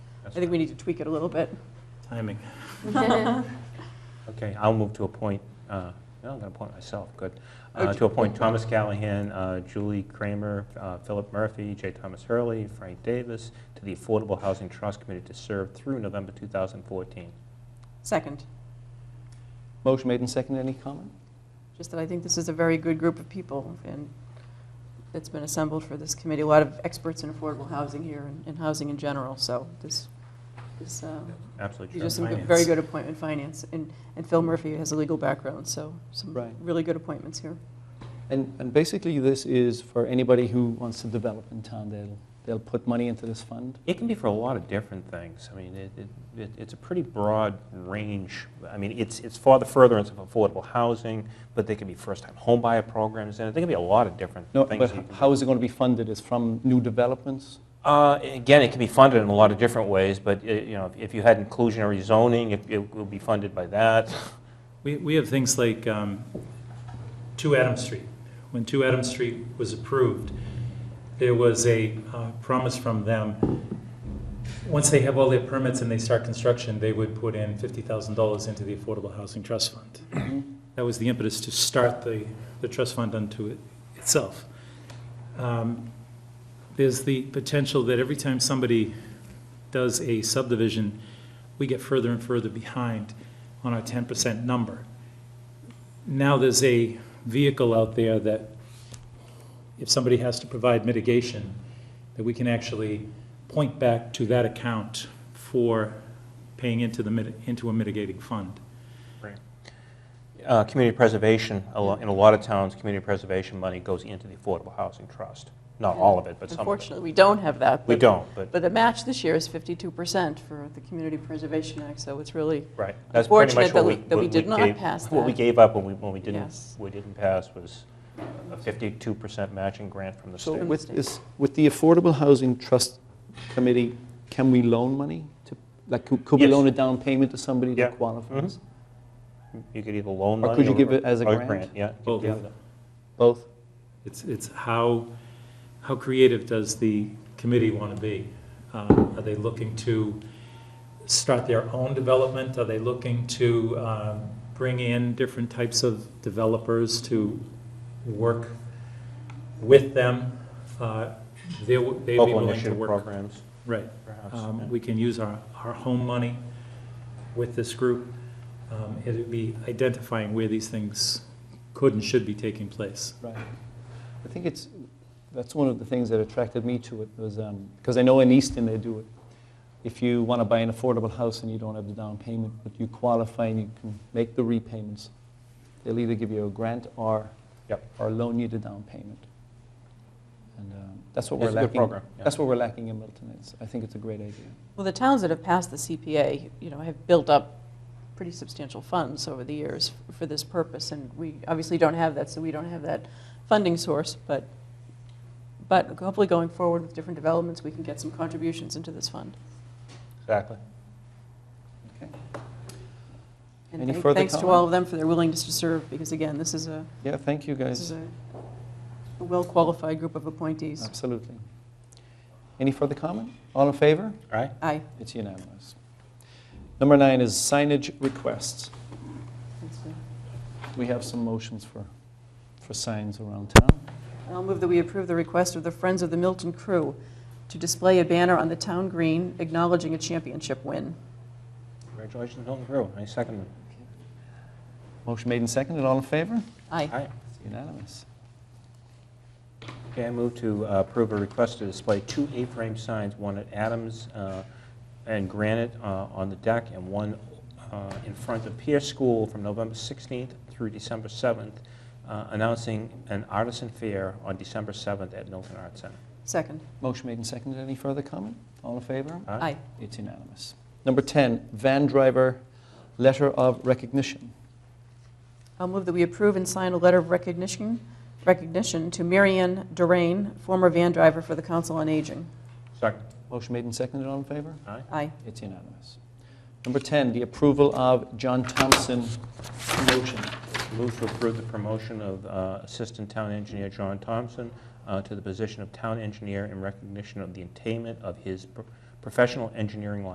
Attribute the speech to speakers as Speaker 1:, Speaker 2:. Speaker 1: I think we need to tweak it a little bit.
Speaker 2: Timing. Okay, I'll move to appoint, uh, no, I'm going to appoint myself, good.
Speaker 1: Oh,
Speaker 2: Uh,
Speaker 1: j-
Speaker 2: To appoint Thomas Callahan, uh, Julie Kramer, uh, Philip Murphy, J. Thomas Hurley, Frank Davis to the Affordable Housing Trust Committee to serve through November 2014.
Speaker 1: Second,
Speaker 3: Motion made and seconded. Any comment?
Speaker 1: just that I think this is a very good group of people and that's been assembled for this committee. A lot of experts in affordable housing here and- and housing in general, so this, this, uh,
Speaker 2: Absolutely
Speaker 1: these
Speaker 2: true.
Speaker 1: are some good-
Speaker 2: Finance.
Speaker 1: very good appointment finance. And and Phil Murphy has a legal background, so some
Speaker 3: Right.
Speaker 1: really good appointments here.
Speaker 3: And, and basically, this is for anybody who wants to develop in town. They'll, they'll put money into this fund.
Speaker 2: It can be for a lot of different things. I mean, it, it- it, it's a pretty broad range. I mean, it's, it's for the furtherance of affordable housing, but they could be first-time homebuyer programs, and there can be a lot of different
Speaker 3: No,
Speaker 2: things.
Speaker 3: but
Speaker 2: that you can
Speaker 3: how is it going to be funded? Is from new developments?
Speaker 2: Uh, Again, it can be funded in a lot of different ways, but, uh, you know, if- if you had inclusionary zoning, it- it will be funded by that.
Speaker 4: We, we have things like um, Two Adam Street. When Two Adam Street was approved, there was a uh, promise from them, once they have all their permits and they start construction, they would put in $50,000 into the Affordable Housing Trust Fund. That was the impetus to start the, the trust fund unto it- itself. Um, There's the potential that every time somebody does a subdivision, we get further and further behind on our ten percent number. Now there's a vehicle out there that if somebody has to provide mitigation, that we can actually point back to that account for paying into the, mit- into a mitigating fund.
Speaker 2: Uh, Community preservation, a lo- in a lot of towns, community preservation money goes into the Affordable Housing Trust. Not all of it, but some of it.
Speaker 1: Unfortunately, we don't have that.
Speaker 2: We
Speaker 1: but-
Speaker 2: don't, but,
Speaker 1: But the match this year is 52% for the Community Preservation Act, so it's really,
Speaker 2: right. That's pretty much what
Speaker 1: Unfortunate that we- that we
Speaker 2: what
Speaker 1: did not
Speaker 2: gave-
Speaker 1: pass
Speaker 2: What we
Speaker 1: that.
Speaker 2: gave up when we, when we
Speaker 1: Yes.
Speaker 2: didn't, we didn't pass was a 52% matching grant from the
Speaker 3: So
Speaker 2: state.
Speaker 3: with this, with the Affordable Housing Trust Committee, can we loan money to, like, could could we
Speaker 2: Yes.
Speaker 3: loan a down payment to somebody
Speaker 2: Yeah.
Speaker 3: that qualifies?
Speaker 2: Mhm. You could either loan
Speaker 3: Or
Speaker 2: money.
Speaker 3: could you give it as a
Speaker 2: or
Speaker 3: grant?
Speaker 2: Yeah. you could
Speaker 4: Both.
Speaker 2: give it.
Speaker 3: Both?
Speaker 4: It's, it's how, how creative does the committee want to be? Um, Are they looking to start their own development? Are they looking to um, bring in different types of developers to work with them? Uh, They w- They'd be
Speaker 2: Local
Speaker 4: willing to
Speaker 2: initiative
Speaker 4: work.
Speaker 2: programs,
Speaker 4: Right.
Speaker 2: perhaps.
Speaker 4: Um,
Speaker 2: yeah.
Speaker 4: We can use our, our home money with this group. Um, It'd be identifying where these things could and should be taking place.
Speaker 3: Right. I think it's, that's one of the things that attracted me to it was, because I know in Easton they do it. If you want to buy an affordable house and you don't have the down payment, but you qualify and you can make the repayments, they'll either give you a grant or,
Speaker 2: Yep.
Speaker 3: or loan you the down payment. And um, that's what we're
Speaker 2: It's a
Speaker 3: lacking.
Speaker 2: good program. yeah.
Speaker 3: That's what we're lacking in Milton. It's, I think it's a great idea.
Speaker 1: well, the towns that have passed the CPA, you know, have built up pretty substantial funds over the years f- for this purpose, and we obviously don't have that, so we don't have that funding source, but, but hopefully going forward with different developments, we can get some contributions into this fund.
Speaker 2: Exactly.
Speaker 1: And
Speaker 3: Any
Speaker 1: thank-
Speaker 3: further
Speaker 1: Thanks to
Speaker 3: comment?
Speaker 1: all of them for their willingness to serve, because again, this is a,
Speaker 3: Yeah, thank you
Speaker 1: this is
Speaker 3: guys.
Speaker 1: a a well-qualified group of appointees.
Speaker 3: Absolutely. Any further comment? All in favor?
Speaker 2: All right.
Speaker 1: Aye.
Speaker 3: It's unanimous. Number nine is signage requests.
Speaker 1: That's it.
Speaker 3: We have some motions for, for signs around town.
Speaker 1: I'll move that we approve the request of the Friends of the Milton Crew to display a banner on the town green acknowledging a championship win.
Speaker 2: Congratulations, Milton Crew. I second it.
Speaker 3: Motion made and seconded, all in favor?
Speaker 1: Aye.
Speaker 2: Aye.
Speaker 3: It's unanimous.
Speaker 2: Okay, I move to uh, approve a request to display two A-frame signs, one at Adams uh, and Granite uh, on the deck, and one uh, in front of Pierce School from November 16th through December 7th, uh, announcing an artisan fair on December 7th at Milton Arts Center.
Speaker 1: Second.
Speaker 3: Motion made and seconded, any further comment? All in favor?
Speaker 1: Aye.
Speaker 3: It's unanimous. Number 10, van driver letter of recognition.
Speaker 1: I'll move that we approve and sign a letter of recognition, recognition to Marianne Durain, former van driver for the Council on Aging.
Speaker 2: Second.
Speaker 3: Motion made and seconded, all in favor?
Speaker 2: Aye.
Speaker 1: Aye.
Speaker 3: It's unanimous. Number 10, the approval of John Thompson promotion.
Speaker 2: Move to approve the promotion of uh, Assistant Town Engineer John Thompson uh, to the position of Town Engineer in recognition of the attainment of his pro- professional engineering